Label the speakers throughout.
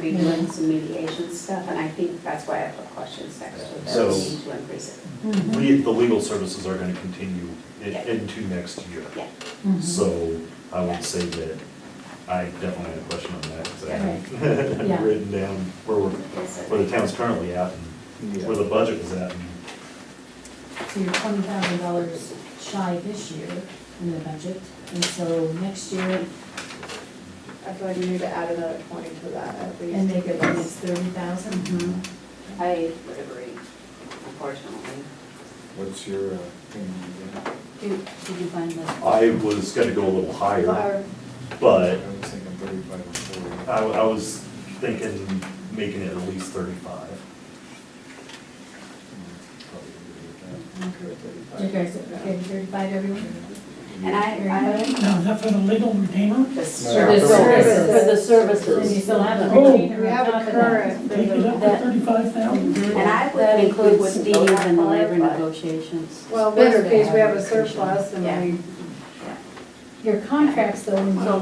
Speaker 1: be doing some mediation stuff, and I think that's why I put questions next to that,
Speaker 2: So-
Speaker 1: we need to increase it.
Speaker 3: Mm-hmm.
Speaker 2: We, the legal services are gonna continue i-
Speaker 1: Mm-hmm. Yeah.
Speaker 2: into next year.
Speaker 1: Yeah,
Speaker 3: Mm-hmm.
Speaker 2: So I would say that I definitely had a question on that, because I
Speaker 3: Okay. Yeah.
Speaker 2: had written down where we're,
Speaker 1: Yes, sir.
Speaker 2: where the town's currently at and where the budget was at. and
Speaker 3: So you're twenty thousand dollars shy this year in the budget, and so next year,
Speaker 4: I feel like we need to add another twenty to that at least.
Speaker 3: and they give us thirty
Speaker 4: Mm-hmm.
Speaker 3: thousand?
Speaker 1: Mm-hmm. I would agree, unfortunately.
Speaker 5: What's your uh, opinion again?
Speaker 1: Did did you find the?
Speaker 2: I was gonna go a little higher,
Speaker 4: Or-
Speaker 2: but
Speaker 5: I was thinking thirty-five or forty.
Speaker 2: I, I was thinking making it at least thirty-five.
Speaker 4: I'm okay with 35.
Speaker 3: You guys, okay, thirty-five everyone?
Speaker 1: And I,
Speaker 6: No, is that for the legal retainer?
Speaker 1: I, the
Speaker 5: For
Speaker 3: the
Speaker 1: service.
Speaker 3: services.
Speaker 7: For the
Speaker 3: And you
Speaker 7: services.
Speaker 3: still have a
Speaker 6: Oh.
Speaker 3: retainer
Speaker 4: We
Speaker 3: on
Speaker 4: have
Speaker 3: top
Speaker 4: a
Speaker 3: of that.
Speaker 4: current,
Speaker 6: Take it up to
Speaker 7: That-
Speaker 6: thirty-five thousand?
Speaker 1: And I would
Speaker 7: That
Speaker 1: think we
Speaker 7: includes
Speaker 1: wouldn't
Speaker 7: fees
Speaker 1: go that
Speaker 7: and
Speaker 1: far,
Speaker 7: labor
Speaker 1: but.
Speaker 7: negotiations.
Speaker 4: Well, in which
Speaker 7: Better to
Speaker 4: case,
Speaker 7: have
Speaker 4: we have a
Speaker 7: negotiation.
Speaker 4: surplus
Speaker 1: Yeah.
Speaker 4: and we,
Speaker 1: yeah.
Speaker 3: Your contracts though, and so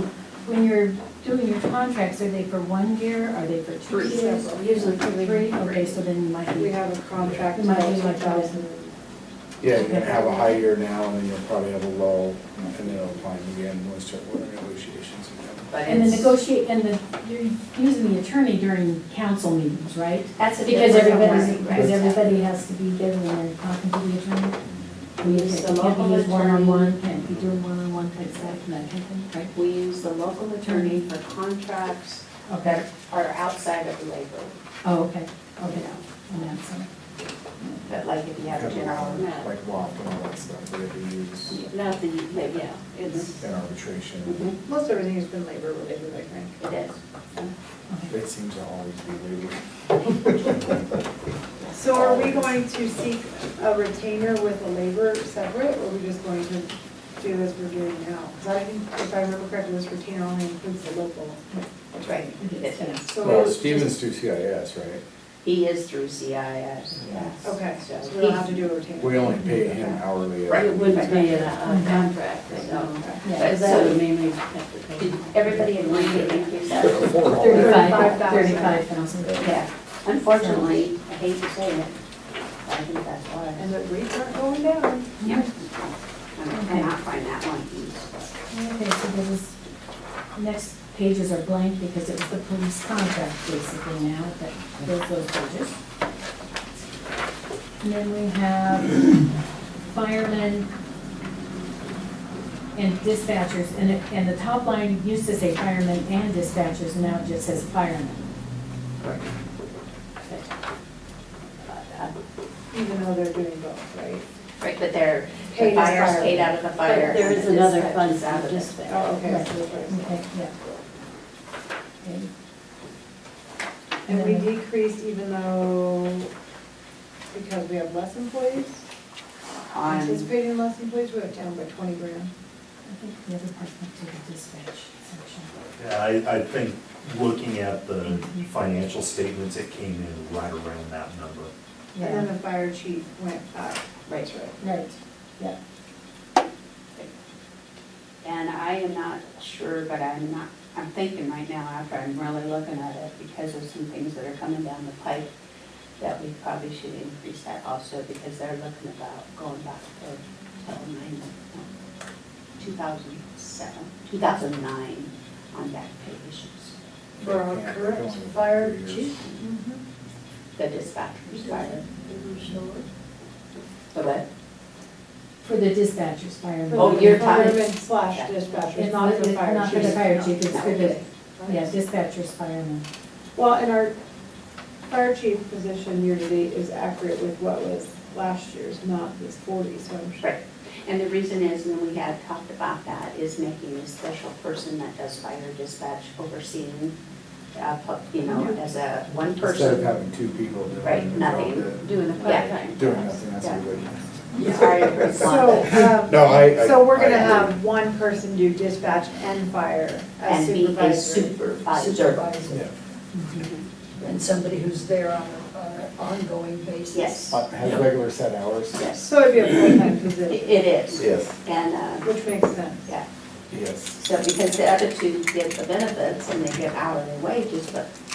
Speaker 3: when you're doing your contracts, are they for one year, are they for two years?
Speaker 1: Usually three.
Speaker 3: Three, okay, so then you might
Speaker 4: we
Speaker 3: be,
Speaker 4: have a contract.
Speaker 3: It might be
Speaker 4: till
Speaker 3: like that.
Speaker 4: 2000.
Speaker 5: Yeah, you're gonna have a high year now, and then you'll probably have a low, and then it'll climb again, when we start working negotiations again.
Speaker 1: But
Speaker 3: and the
Speaker 1: it's,
Speaker 3: negotiate, and the, you're using the attorney during council meetings, right?
Speaker 1: that's a
Speaker 3: Because
Speaker 1: different
Speaker 3: everybody's,
Speaker 1: one,
Speaker 3: because
Speaker 1: right?
Speaker 3: everybody has to be given and talking to the attorney. We
Speaker 1: Use the
Speaker 3: can't
Speaker 1: local
Speaker 3: be used one-on-one, can't be doing one-on-one type stuff, and that kind of thing,
Speaker 1: We use the local attorney for contracts
Speaker 3: right? Okay.
Speaker 1: are outside of labor,
Speaker 3: Oh, okay,
Speaker 1: you
Speaker 3: okay,
Speaker 1: know,
Speaker 3: and that's, uh,
Speaker 1: but like if you have a general
Speaker 5: Like
Speaker 1: net,
Speaker 5: WAP and all that stuff, that we use
Speaker 1: nothing, but yeah,
Speaker 3: Mm-hmm.
Speaker 1: it's,
Speaker 5: in arbitration,
Speaker 1: Mm-hmm.
Speaker 4: Most everything has been labor related, I think.
Speaker 1: it is.
Speaker 3: okay.
Speaker 5: it seems to always be labor.
Speaker 4: So are we going to seek a retainer with a labor separate, or are we just going to do as we're doing now? Because I think, if I remember correctly, this retainer only includes the local.
Speaker 1: That's right. It is.
Speaker 4: So
Speaker 5: Well,
Speaker 4: it's
Speaker 5: Stevens
Speaker 4: just-
Speaker 5: do CIS, right?
Speaker 1: He is through CIS, yes.
Speaker 4: Okay, so
Speaker 1: So
Speaker 4: we don't
Speaker 1: he-
Speaker 4: have to do a retainer.
Speaker 5: We only pay him hourly.
Speaker 1: Right,
Speaker 7: It wouldn't be a a contract, so,
Speaker 1: So,
Speaker 3: Yeah.
Speaker 7: because that would mainly have to pay.
Speaker 1: did everybody agree to increase that?
Speaker 5: Before all that.
Speaker 3: Thirty-five, thirty-five
Speaker 4: 35,000.
Speaker 3: thousand.
Speaker 1: Yeah, unfortunately, I hate to say it, but I think that's why.
Speaker 4: And the rates aren't going down.
Speaker 1: Yep. I cannot find that one piece.
Speaker 3: Okay, so this is, next pages are blank because it was the police contract basically now that fills those pages. And then we have firemen and dispatchers, and it, and the top line used to say firemen and dispatchers, now it just says firemen.
Speaker 4: Even though they're doing both, right?
Speaker 1: Right, but they're, the
Speaker 4: Paid as
Speaker 1: fire's
Speaker 4: fire.
Speaker 1: paid out of the
Speaker 7: But
Speaker 1: fire.
Speaker 7: There
Speaker 1: and
Speaker 7: is
Speaker 1: the
Speaker 7: another
Speaker 1: dispatch
Speaker 7: fund
Speaker 1: is out
Speaker 7: for
Speaker 1: of it.
Speaker 7: dispatch.
Speaker 4: Oh, okay, so that's right.
Speaker 3: Okay, yeah. Okay.
Speaker 4: And we
Speaker 3: then-
Speaker 4: decreased even though, because we have less employees,
Speaker 1: On,
Speaker 4: anticipating less employees, we have down by twenty grand.
Speaker 3: I think the other part went to the dispatch section.
Speaker 2: Yeah, I, I think looking at the
Speaker 1: Mm-hmm.
Speaker 2: financial statements, it came in right around that number.
Speaker 4: And then the fire chief went up.
Speaker 1: Right.
Speaker 3: Right, yeah.
Speaker 1: and I am not sure, but I'm not, I'm thinking right now after I'm really looking at it because of some things that are coming down the pipe that we probably should increase that also because they're looking about going back to till nine, two thousand seven, two thousand nine on that page.
Speaker 4: For our
Speaker 5: Yeah,
Speaker 4: current
Speaker 5: they're only
Speaker 4: fire
Speaker 5: three years.
Speaker 4: chief?
Speaker 1: Mm-hmm. The dispatcher's fire. The what?
Speaker 3: For the dispatchers, firemen.
Speaker 1: Oh, you're talking-
Speaker 4: Fireman slash dispatcher,
Speaker 3: It's
Speaker 4: not the fire chief.
Speaker 3: Not for the fire chief, it's for the,
Speaker 1: Okay.
Speaker 3: yeah, dispatchers, firemen.
Speaker 4: Well, and our fire chief position year-to-date is accurate with what was last year's, not this forty, so I'm sure.
Speaker 1: Right, and the reason is, and we had talked about that, is making a special person that does fire dispatch overseeing, uh, pu- you know, as a one
Speaker 5: Instead of
Speaker 1: person.
Speaker 5: having two people doing.
Speaker 1: Right,
Speaker 5: the job
Speaker 1: nothing,
Speaker 5: that-
Speaker 1: doing the part-time.
Speaker 5: Doing nothing, that's
Speaker 1: Yeah.
Speaker 5: a good.
Speaker 1: Sorry for the
Speaker 4: So,
Speaker 1: blunt.
Speaker 4: um,
Speaker 5: No, I- I-
Speaker 4: so we're
Speaker 5: I-
Speaker 4: gonna have one person do dispatch and fire as
Speaker 1: And be a
Speaker 4: supervisor.
Speaker 1: supervisor.
Speaker 5: Yeah.
Speaker 8: and somebody who's there on a- on an ongoing basis.
Speaker 1: Yes,
Speaker 5: Uh, Has regular set hours?
Speaker 1: yes,
Speaker 4: So it'd be a full-time
Speaker 1: it
Speaker 4: position,
Speaker 1: it is.
Speaker 5: Yes.
Speaker 1: And, uh,
Speaker 4: which makes sense.
Speaker 1: yeah,
Speaker 5: Yes.
Speaker 1: so because the other two get the benefits and they get hourly wages, but